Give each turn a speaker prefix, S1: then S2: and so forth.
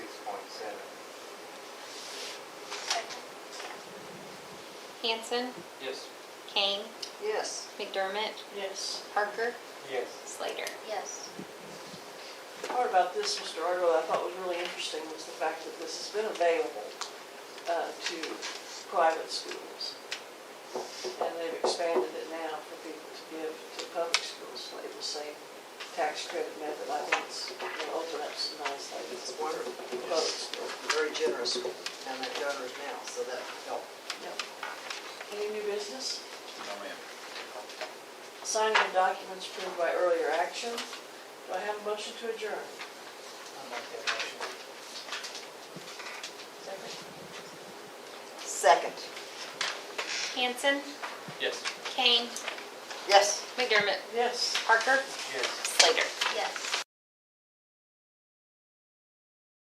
S1: Hanson,
S2: Yes.
S1: Kane,
S3: Yes.
S1: McDermott,
S3: Yes.
S1: Parker,
S2: Yes.
S1: Slater.
S4: Yes.
S3: Part about this, Mr. Argo, that I thought was really interesting was the fact that this has been available uh, to private schools. And they've expanded it now for people to give to public schools, like the same tax credit method I once, you know, opened up some nice things
S5: It's
S3: for
S5: wonderful.
S3: public schools.
S5: Very generous, and they're donors now, so that helped.
S3: Any new business?
S6: No, ma'am.
S3: Signing of documents approved by earlier action. Do I have a motion to adjourn?
S2: I'll make that motion.
S5: Second.
S1: Hanson,
S2: Yes.
S1: Kane,
S5: Yes.
S1: McDermott,
S3: Yes.
S1: Parker,
S2: Yes.
S1: Slater.
S4: Yes.